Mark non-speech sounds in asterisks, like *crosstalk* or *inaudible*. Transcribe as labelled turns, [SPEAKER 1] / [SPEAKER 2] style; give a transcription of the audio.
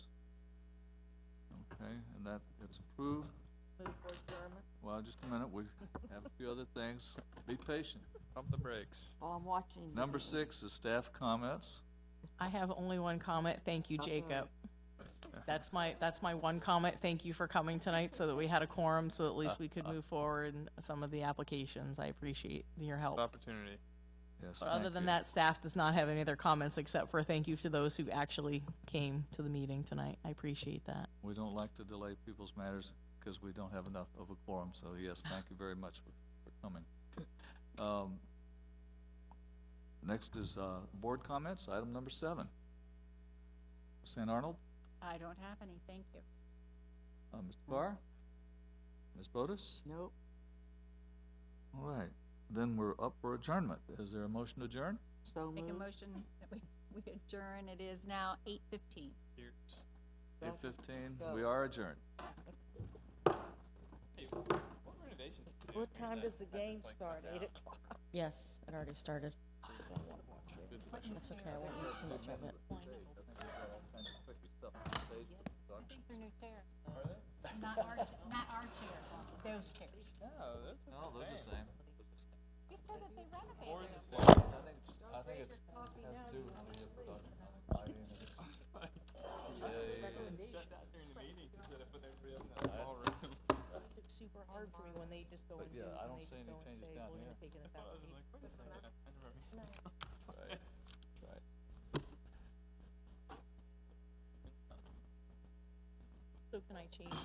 [SPEAKER 1] Okay, and that, it's approved.
[SPEAKER 2] Move for adjournment.
[SPEAKER 1] Well, just a minute, we have a few other things. Be patient.
[SPEAKER 3] Pump the brakes.
[SPEAKER 2] While I'm watching.
[SPEAKER 1] Number six is staff comments.
[SPEAKER 4] I have only one comment. Thank
[SPEAKER 5] Oh,
[SPEAKER 4] you, Jacob. That's my, that's my one comment. Thank you for coming tonight so that we had a quorum, so at least we could move forward in some of the applications. I appreciate your help.
[SPEAKER 3] Opportunity.
[SPEAKER 1] Yes,
[SPEAKER 4] But other
[SPEAKER 1] Uh, thank
[SPEAKER 4] than
[SPEAKER 1] you.
[SPEAKER 4] that, staff does not have any other comments except for thank you to those who actually came to the meeting tonight. I appreciate that.
[SPEAKER 1] We don't like to delay people's matters because we don't have enough of a quorum, so yes, thank you very much for for coming. Um, Next is, uh, board comments, item number seven. St. Arnold,
[SPEAKER 6] I don't have any, thank you.
[SPEAKER 1] uh, Ms. Barr, Ms. Bodus?
[SPEAKER 2] Nope.
[SPEAKER 1] All right, then we're up for adjournment. Is there a motion to adjourn?
[SPEAKER 2] So
[SPEAKER 6] Make a
[SPEAKER 2] moved.
[SPEAKER 6] motion that we, we adjourn, it is now eight fifteen.
[SPEAKER 3] Here's.
[SPEAKER 1] Eight
[SPEAKER 2] Yes.
[SPEAKER 1] fifteen,
[SPEAKER 2] go.
[SPEAKER 1] we are adjourned.
[SPEAKER 3] Hey, what renovations? to do?
[SPEAKER 2] What time
[SPEAKER 3] That-
[SPEAKER 2] does the
[SPEAKER 3] that is
[SPEAKER 2] game
[SPEAKER 3] like
[SPEAKER 2] start?
[SPEAKER 3] down.
[SPEAKER 2] Eight o'clock?
[SPEAKER 5] Yes, it already started. That's okay, I won't use too much of it.
[SPEAKER 6] Not our, not our chairs, those chairs.
[SPEAKER 3] No, those are
[SPEAKER 1] No, those are the same.
[SPEAKER 6] You said that they
[SPEAKER 3] Or
[SPEAKER 6] renovated.
[SPEAKER 3] is the same.
[SPEAKER 1] I think it's, I think it's, has to do with how we have production.
[SPEAKER 3] Shut out during the meeting, just set up with everybody else in that small room.
[SPEAKER 5] It's super hard for me when they just go and do
[SPEAKER 1] yeah,
[SPEAKER 5] it,
[SPEAKER 1] I
[SPEAKER 5] and
[SPEAKER 1] don't
[SPEAKER 5] they
[SPEAKER 1] see
[SPEAKER 5] just
[SPEAKER 1] any
[SPEAKER 5] go and
[SPEAKER 1] changes
[SPEAKER 5] say,
[SPEAKER 1] down
[SPEAKER 5] we're
[SPEAKER 1] here."
[SPEAKER 5] gonna take in this
[SPEAKER 3] *laughs* I was like,
[SPEAKER 5] application.
[SPEAKER 3] wait a second, I
[SPEAKER 5] *laughs*
[SPEAKER 3] never. Right.
[SPEAKER 1] Right.
[SPEAKER 5] So can I change